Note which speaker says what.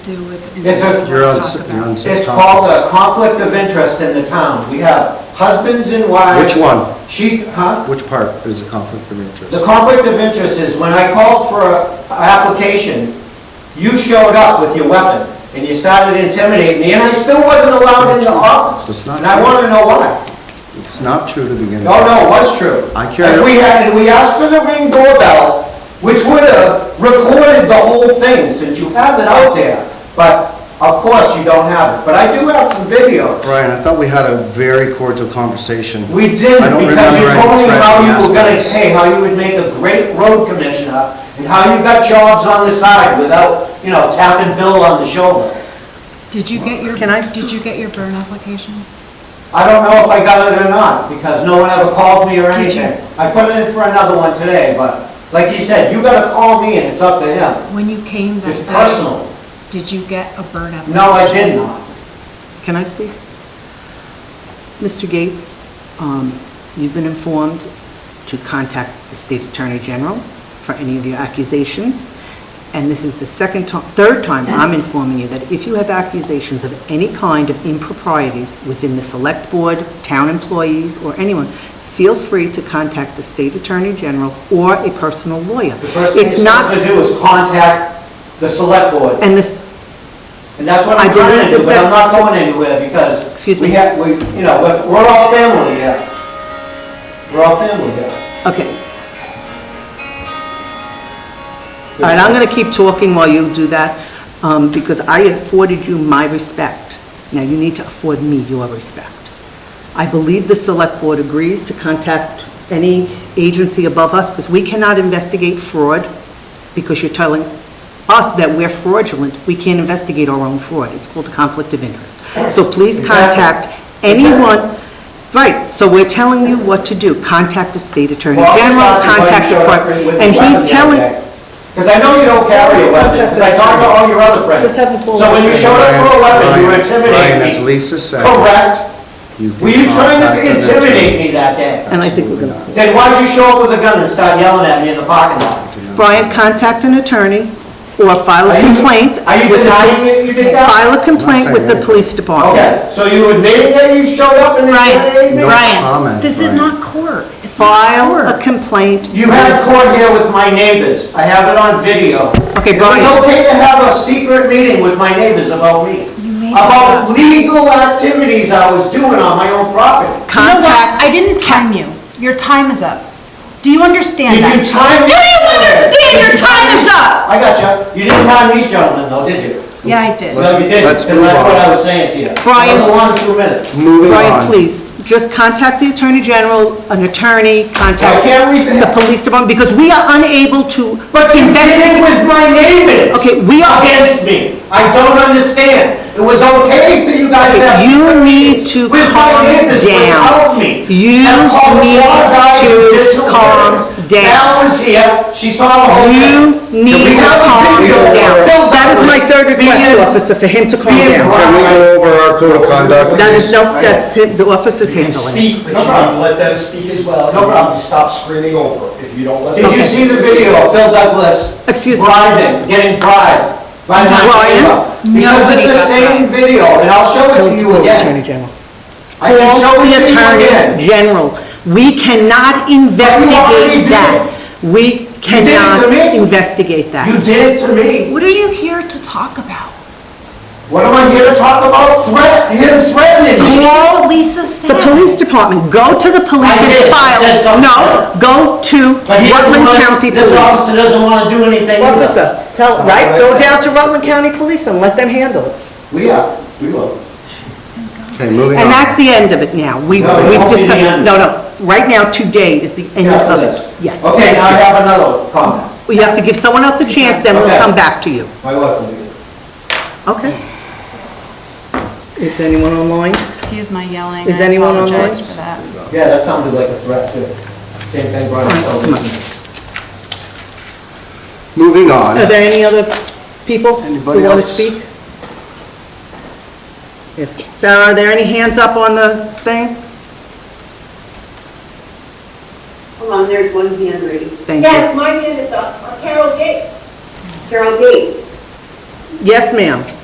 Speaker 1: do with. and
Speaker 2: It's
Speaker 1: so
Speaker 2: a-
Speaker 1: we'll
Speaker 3: You're on
Speaker 1: talk
Speaker 3: s-
Speaker 1: about
Speaker 3: you're on
Speaker 1: it.
Speaker 3: s-
Speaker 2: It's called uh, a conflict of interest in the town. We have husbands and wives.
Speaker 3: Which one?
Speaker 2: She, huh?
Speaker 3: Which part is a conflict of
Speaker 2: The
Speaker 3: interest?
Speaker 2: conflict of interest is when I called for a- a application, you showed up with your weapon and you started intimidating me and I still wasn't allowed in the office.
Speaker 3: It's not
Speaker 2: And I
Speaker 3: true.
Speaker 2: want to know why.
Speaker 3: It's not true to begin with.
Speaker 2: No, no, it was true.
Speaker 3: I carry-
Speaker 2: If we had, and we asked for the ring doorbell, which would have recorded the whole thing, since you have it out there, but of course you don't have it. But I do have some videos.
Speaker 3: Brian, I thought we had a very cordial conversation.
Speaker 2: We did,
Speaker 3: I don't
Speaker 2: because you
Speaker 3: remember any
Speaker 2: told me
Speaker 3: threat
Speaker 2: how
Speaker 3: being
Speaker 2: you
Speaker 3: asked
Speaker 2: were gonna,
Speaker 3: for us.
Speaker 2: hey, how you would make a great road commissioner, and how you got jobs on the side without, you know, tapping Bill on the shoulder.
Speaker 1: Did you get your,
Speaker 4: Can I-
Speaker 1: did you get your burn application?
Speaker 2: I don't know if I got it or not, because no one ever called me or
Speaker 1: Did you?
Speaker 2: anything. I put it in for another one today, but like you said, you gotta call me and it's up to him.
Speaker 1: When you came that
Speaker 2: It's
Speaker 1: day?
Speaker 2: personal.
Speaker 1: Did you get a burn application?
Speaker 2: No, I did not.
Speaker 4: Can I speak? Mr. Gates, um, you've been informed to contact the State Attorney General for any of your accusations, and this is the second time, third time I'm informing you that if you have accusations of any kind of improprieties within the Select Board, town employees, or anyone, feel free to contact the State Attorney General or a personal lawyer.
Speaker 2: The first thing you're
Speaker 4: It's not,
Speaker 2: supposed to do is contact the select board.
Speaker 4: and this,
Speaker 2: And that's what I'm
Speaker 4: I
Speaker 2: trying
Speaker 4: believe
Speaker 2: to do,
Speaker 4: the
Speaker 2: but I'm
Speaker 4: sec-
Speaker 2: not going anywhere because
Speaker 4: Excuse
Speaker 2: we
Speaker 4: me.
Speaker 2: have, we, you know, we're- we're all family here. We're all family here.
Speaker 4: okay, All right, I'm going to keep talking while you do that, um, because I afforded you my respect. Now, you need to afford me your respect. I believe the Select Board agrees to contact any agency above us, because we cannot investigate fraud, because you're telling us that we're fraudulent. We can't investigate our own fraud. It's called a conflict of interest. So please
Speaker 2: Exactly.
Speaker 4: contact anyone, right, so we're telling you what to do. Contact the State Attorney
Speaker 2: Well, I'm just
Speaker 4: General,
Speaker 2: asking why you
Speaker 4: contact the
Speaker 2: showed up
Speaker 4: court.
Speaker 2: with a
Speaker 4: And
Speaker 2: weapon the
Speaker 4: he's
Speaker 2: other
Speaker 4: telling,
Speaker 2: day. Cause I know you don't carry a weapon, cause I talked to all your other friends.
Speaker 4: Just have the full-
Speaker 2: So when you showed up for a weapon, you were
Speaker 3: Brian, Brian,
Speaker 2: intimidating
Speaker 3: as
Speaker 2: me.
Speaker 3: Lisa said.
Speaker 2: Correct?
Speaker 3: can
Speaker 2: Were you trying to
Speaker 3: contact them at-
Speaker 2: intimidate me that day?
Speaker 4: And I think we're going to,
Speaker 2: Then why'd you show up with a gun and start yelling at me in the parking lot?
Speaker 4: Brian, contact an attorney or file a
Speaker 2: Are you-
Speaker 4: complaint.
Speaker 2: Are you
Speaker 4: with the-
Speaker 2: denying that you did that?
Speaker 4: File a complaint with the police department.
Speaker 2: Okay, so you admitted that you showed up and intimidated me?
Speaker 3: No comment,
Speaker 1: This is
Speaker 3: Brian.
Speaker 1: not court. It's not
Speaker 4: File
Speaker 1: court.
Speaker 4: a complaint.
Speaker 2: You had court here with my neighbors. I have it on video.
Speaker 4: Okay,
Speaker 2: It was
Speaker 4: Brian.
Speaker 2: okay to have a secret meeting with my neighbors about me.
Speaker 1: You made it up.
Speaker 2: About legal activities I was doing on my own property.
Speaker 1: You know what?
Speaker 4: Contact,
Speaker 1: I didn't time you. Your time is up. Do you understand
Speaker 2: Did
Speaker 1: that?
Speaker 2: you time?
Speaker 1: Do you understand?
Speaker 2: Did
Speaker 1: Your
Speaker 2: you
Speaker 1: time is up.
Speaker 2: I got you. You didn't time these gentlemen though, did you?
Speaker 1: Yeah, I did.
Speaker 3: Let's-
Speaker 2: No, you didn't,
Speaker 3: let's
Speaker 2: because
Speaker 3: move
Speaker 2: that's what
Speaker 3: on.
Speaker 2: I was saying to you.
Speaker 4: Brian.
Speaker 2: It was a long two minutes.
Speaker 3: Moving on.
Speaker 4: Brian, please, just contact the attorney general, an attorney,
Speaker 2: I
Speaker 4: contact
Speaker 2: can't read
Speaker 4: the
Speaker 2: that.
Speaker 4: police department, because we are unable to
Speaker 2: But you did it
Speaker 4: investigate.
Speaker 2: with my neighbors.
Speaker 4: Okay, we are-
Speaker 2: Against me. I don't understand. It was okay for you guys to have.
Speaker 4: You need to
Speaker 2: With my
Speaker 4: calm
Speaker 2: neighbors
Speaker 4: down.
Speaker 2: Without me.
Speaker 4: You
Speaker 2: And called
Speaker 4: need
Speaker 2: quasi-judicial
Speaker 4: to calm
Speaker 2: hearings.
Speaker 4: down.
Speaker 2: Val was here, she saw the whole
Speaker 4: You
Speaker 2: thing.
Speaker 4: need to calm down. That is my third request, officer, for him to calm
Speaker 2: being
Speaker 3: Can
Speaker 4: down.
Speaker 3: we go over our code of conduct?
Speaker 4: That is, no, that's it, the officer's handling.
Speaker 5: Speak, but you need to let them speak as well.
Speaker 2: No problem.
Speaker 5: You Stop screaming over if you don't let them.
Speaker 2: Did you see the video of Phil Douglas?
Speaker 4: Excuse me.
Speaker 2: Bribing, getting bribed. by my
Speaker 4: Brian?
Speaker 2: neighbor. Because of
Speaker 1: Nobody
Speaker 2: the
Speaker 1: got
Speaker 2: same video, and I'll show
Speaker 4: Tell
Speaker 2: it to
Speaker 4: him to
Speaker 2: you
Speaker 4: call the attorney
Speaker 2: again.
Speaker 4: general.
Speaker 2: I can show
Speaker 4: Call the
Speaker 2: it to you again.
Speaker 4: attorney general. We cannot
Speaker 2: already did.
Speaker 4: investigate that. We
Speaker 2: did it to
Speaker 4: cannot
Speaker 2: me.
Speaker 4: investigate
Speaker 2: You
Speaker 4: that.
Speaker 2: did it to me.
Speaker 1: What are you here to talk about?
Speaker 2: What am I here to talk about? Threat, him threatening
Speaker 4: Did
Speaker 2: me.
Speaker 4: you-
Speaker 1: All Lisa said.
Speaker 4: The police department, go to the police
Speaker 2: I did. I
Speaker 4: and
Speaker 2: said
Speaker 4: file,
Speaker 2: something.
Speaker 4: no, go to
Speaker 2: But he doesn't
Speaker 4: Rutland
Speaker 2: wanna-
Speaker 4: County
Speaker 2: This
Speaker 4: Police.
Speaker 2: officer doesn't want to do anything. either.
Speaker 4: Officer, tell, right, go down to Rutland County Police and let them handle it.
Speaker 2: We are, we will.
Speaker 3: Okay, moving on.
Speaker 4: And that's the end of it now. We've,
Speaker 2: No, it
Speaker 4: we've
Speaker 2: won't be the
Speaker 4: discussed,
Speaker 2: end.
Speaker 4: no, no, right now, today is the end
Speaker 2: Yeah,
Speaker 4: of
Speaker 2: please.
Speaker 4: it. Yes.
Speaker 2: Okay, now I have another comment.
Speaker 4: We have to give someone else a chance, then
Speaker 2: Okay.
Speaker 4: we'll come back to you.
Speaker 2: My wife will be there.
Speaker 4: Okay. Is anyone online?
Speaker 1: Excuse my yelling.
Speaker 4: Is
Speaker 1: I
Speaker 4: anyone online?
Speaker 1: apologize for that.
Speaker 2: Yeah, that sounded like a threat too. Same thing Brian told me.
Speaker 3: Moving on.
Speaker 4: Are there any other people who
Speaker 3: Anybody
Speaker 4: want to
Speaker 3: else?
Speaker 4: speak? Yes. Sarah, are there any hands up on the thing?
Speaker 6: Hold on, there's one hand raised.
Speaker 4: Thank you.
Speaker 6: Yes, my hand is up, Uh, Carol Gates. Carol Gates.
Speaker 4: Yes, ma'am.